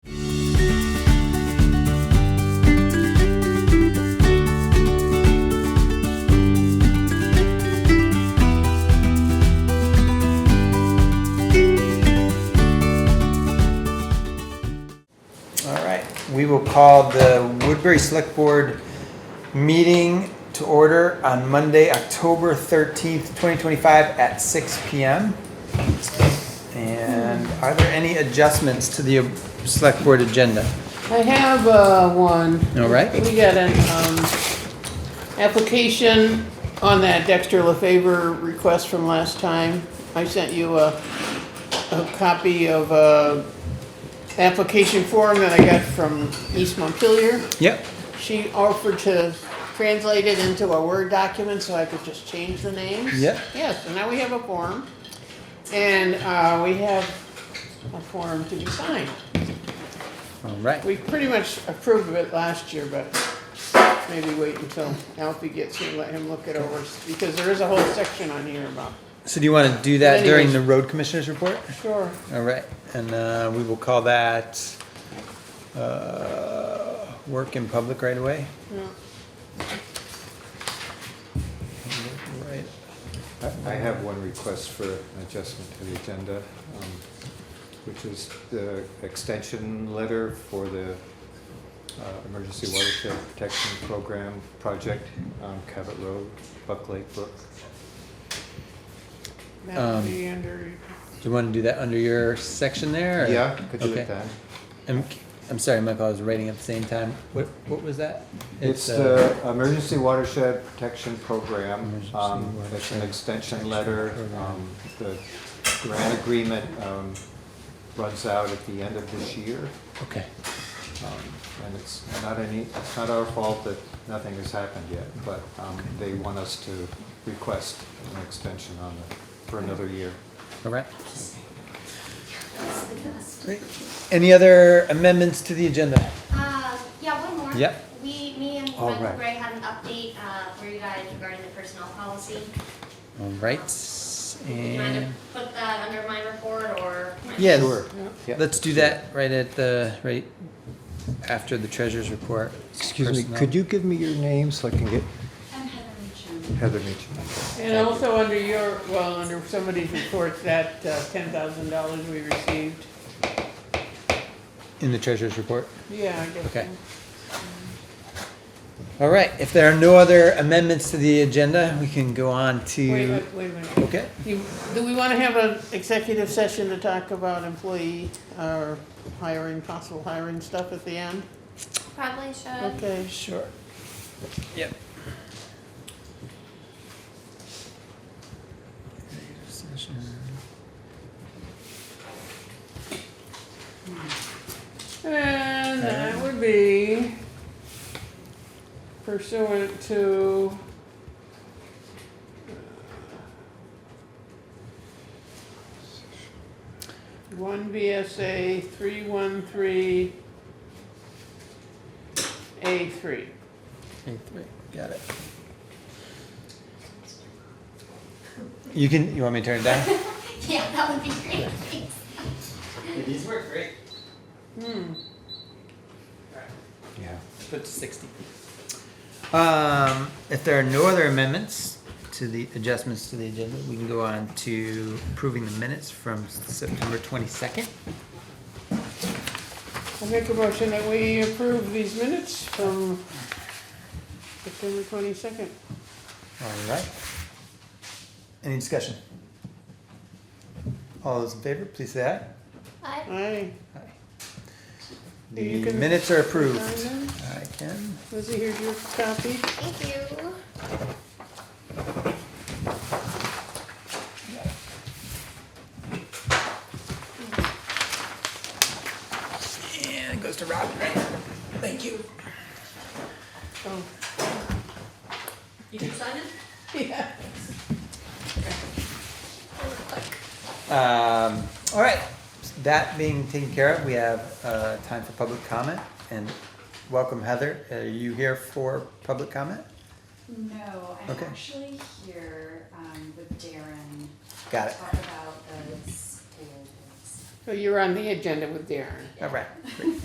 All right, we will call the Woodbury Select Board meeting to order on Monday, October 13th, 2025 at 6 PM. And are there any adjustments to the Select Board agenda? I have, uh, one. All right, We got an, um, application on that Dexter LaFever request from last time. I sent you a, a copy of a application form that I got from East Montpelier. yep, She offered to translate it into a Word document so I could just change the names. Yeah. Yes, so now we have a form, and, uh, we have a form to be signed. all right. We pretty much approved of it last year, but maybe wait until Alfie gets here, let him look it over, because there is a whole section on here about. So do you want to do that during Anyways. the Road Commissioners Report? Sure. All right, and uh, we will call that uh, work in public right away? Right. I- I have one request for an adjustment to the agenda, um, which is the extension letter for the uh, Emergency Watershed Protection Program project on Cabot Road, Buck Lake Brook. That would be under, Do you want to do that under your section there? or- Yeah, could you Okay. hit that? I'm, I'm sorry, Michael, I was writing at the same time. What, what was that? It's uh, the Emergency Watershed Protection Program. Emergency um, It's an Watershed extension Protection letter. Program. um, The grant agreement um, runs out at the end of this year. Okay, Um, And it's not any, it's not our fault that nothing has happened yet, but um, they want us to request an extension on it for another year. all right. Great. Any other amendments to the agenda? Uh, yeah, one more. Yep. We, me and All Michael right. Gray had an update, uh, for you guys regarding the personnel policy. All right, Do you mind and, to put that under my report or? my- yes, Sure. Yeah. let's do that right at the, right after the treasurer's report. Excuse me, could you give me your name so I can get? I'm Heather Meacham. and also under your, well, under somebody's reports, that uh, ten thousand dollars we received. In the treasurer's report? Yeah, I guess. Okay. All right, if there are no other amendments to the agenda, we can go on Wait, to, wait, wait a minute. okay? You- Do we want to have an executive session to talk about employee, or hiring, possible hiring stuff at the end? Probably should. Okay. Sure. Yep. And that would be pursuant to uh, one VSA three one three A three. Eight, three, got it. You can, you want me to turn it down? Yeah, that would be great. Thanks. These work great. Hmm, Yeah. Put to sixty. Um, if there are no other amendments to the adjustments to the agenda, we can go on to approving the minutes from September twenty-second. I make a motion that we approve these minutes from September twenty-second. All right. Any discussion? All those in favor, please say aye. Bye. Aye. The You can- minutes are approved. Sign them. I can. Lizzie, here's your copy. Thank you. And it goes to Rob. Thank you. Oh. You can sign it? Yeah. Um, all right, that being taken care of, we have, uh, time for public comment and welcome Heather. Are you here for public comment? No, I'm Okay. actually here um, with Darren Got to it. talk about the school. So you're on the agenda with Darren. All right.